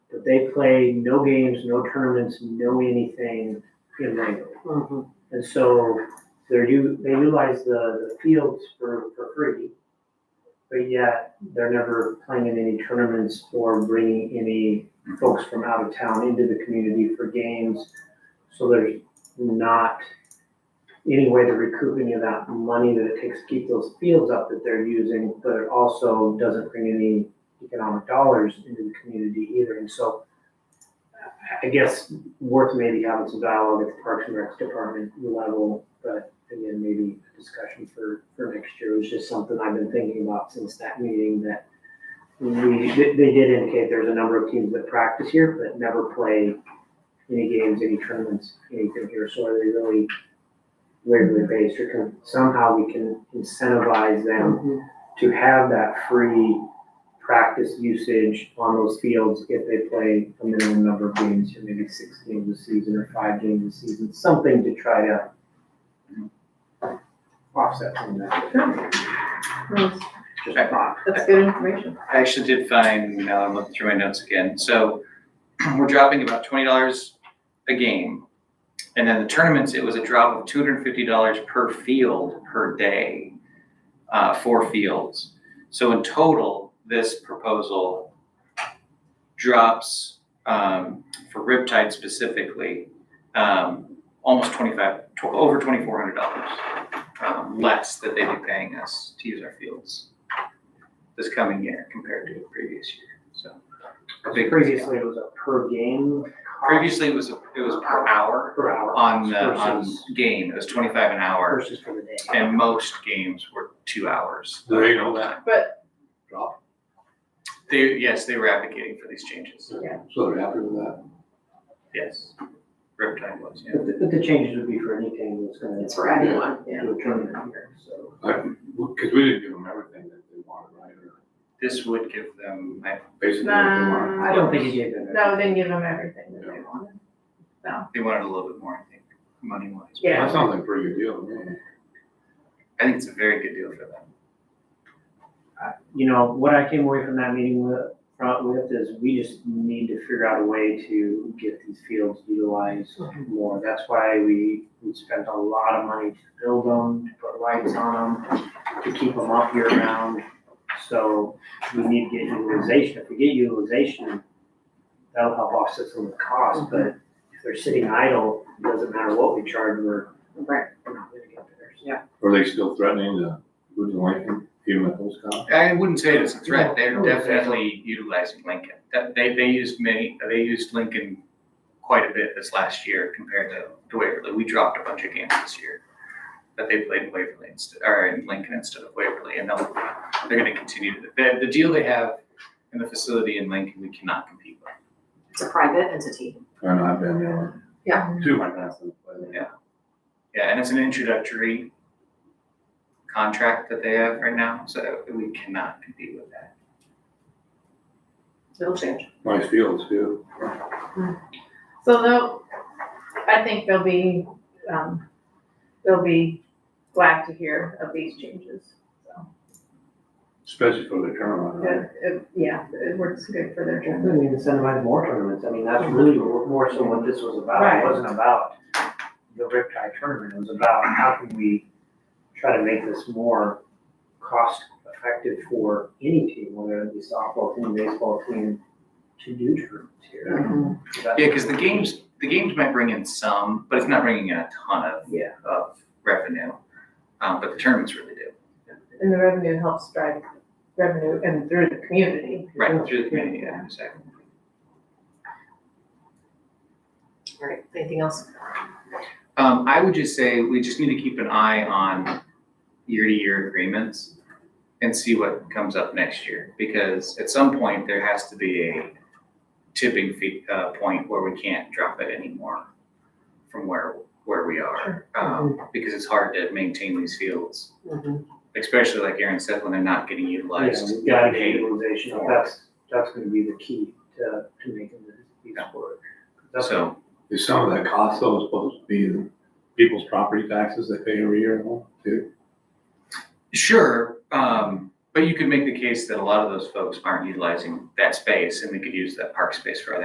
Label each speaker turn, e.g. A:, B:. A: but they play no games, no tournaments, no anything in Wrangell.
B: Mm-hmm.
A: And so they're, u- they utilize the, the fields for, for free, but yet they're never playing in any tournaments or bringing any folks from out of town into the community for games. So there's not any way to recoup any of that money that it takes to keep those fields up that they're using, but it also doesn't bring any economic dollars into the community either. And so I- I guess worth maybe having some dialogue at the Parks and Rec department level, but again, maybe a discussion for, for next year. It was just something I've been thinking about since that meeting that we, they they did indicate there's a number of teams that practice here but never play any games, any tournaments, anything here. So are they really regularly based or can, somehow we can incentivize them to have that free practice usage on those fields if they play a minimum number of games, or maybe six games a season or five games a season, something to try to offset some of that.
B: Nice.
A: Just a thought.
B: That's good information.
C: I actually did find, now that I'm looking through my notes again, so we're dropping about twenty dollars a game. And then the tournaments, it was a drop of two hundred and fifty dollars per field per day, uh, four fields. So in total, this proposal drops, um, for Riptide specifically, um, almost twenty-five, tw- over twenty-four hundred dollars, um, less that they'd be paying us to use our fields this coming year compared to the previous year, so. a big
A: Previously, it was a per game cost
C: Previously, it was, it was per hour
A: per hour.
C: on uh, the, on
A: versus-
C: game, it was twenty-five an hour,
A: Versus for the day.
C: and most games were two hours.
D: Do they know that?
B: But-
D: Drop,
C: They, yes, they were advocating for these changes,
D: so they're happy with that.
C: yes. Riptide was, yeah.
A: But the, but the changes would be for anything that's gonna.
B: It's for anyone, yeah.
A: Do a tournament here, so.
D: Because we didn't give them everything that they wanted, right? Or
C: This would give them, I-
D: Basically what they wanted.
B: Nah.
A: I don't think you gave them.
B: No, didn't give them everything that they wanted.
C: they wanted a little bit more, I think, money wise.
B: Yeah.
D: That sounds like a pretty good deal, to me.
C: I think it's a very good deal for them.
A: you know, what I came away from that meeting with, front with is we just need to figure out a way to get these fields utilized more. That's why we, we spent a lot of money to build them, to put lights on them, to keep them up year round. So we need to get utilization. If we get utilization, that'll help offset some of the cost, but if they're sitting idle, it doesn't matter what we charge, we're,
B: Right.
A: we're not gonna get there. So
D: Are they still threatening to, would you like them, even at those costs?
C: I wouldn't say it's a threat,
A: No,
C: they're
A: no,
C: definitely utilizing Lincoln. That, they, they used many, they used Lincoln quite a bit this last year compared to, to Waverly. We dropped a bunch of games this year. But they played in Waverly instead, or in Lincoln instead of Waverly, and they'll, they're gonna continue to, the, the deal they have in the facility in Lincoln, we cannot compete with.
E: It's a private entity.
D: I know, I've been there.
B: Yeah.
D: Two of my grandson played there.
C: Yeah, and it's an introductory contract that they have right now, so we cannot compete with that.
E: It'll change.
D: Nice fields too.
B: So they'll, I think they'll be, um, they'll be glad to hear of these changes. So,
D: especially for the tournament, right?
B: it, it, yeah, it works good for their
A: Yeah,
B: job.
A: then we incentivize more tournaments, I mean, that's really what- more so what this was about,
B: Right.
A: it wasn't about the Riptide tournament, it was about how can we try to make this more cost effective for any team, whether it be softball team, baseball team, to do tournaments here. That's-
C: Yeah, because the games, the games might bring in some, but it's not bringing in a ton of
A: Yeah.
C: of revenue, um, but the tournaments really do,
B: And the revenue helps drive revenue and through the community.
C: right, through the community, yeah, exactly.
E: All right, anything else?
C: Um, I would just say, we just need to keep an eye on year-to-year agreements and see what comes up next year, because at some point, there has to be a tipping fee, uh, point where we can't drop it anymore from where, where we are, um, because it's hard to maintain these fields,
E: Mm-hmm.
C: especially like Aaron said, when they're not getting
A: Yeah,
C: utilized.
A: we gotta get
C: Hey,
A: utilization, that's, that's gonna be the key to, to making this, these work. That's-
C: So,
D: Is some of that cost though supposed to be the people's property taxes they pay every year, huh, too?
C: sure, um, but you could make the case that a lot of those folks aren't utilizing that space and we could use that park space for other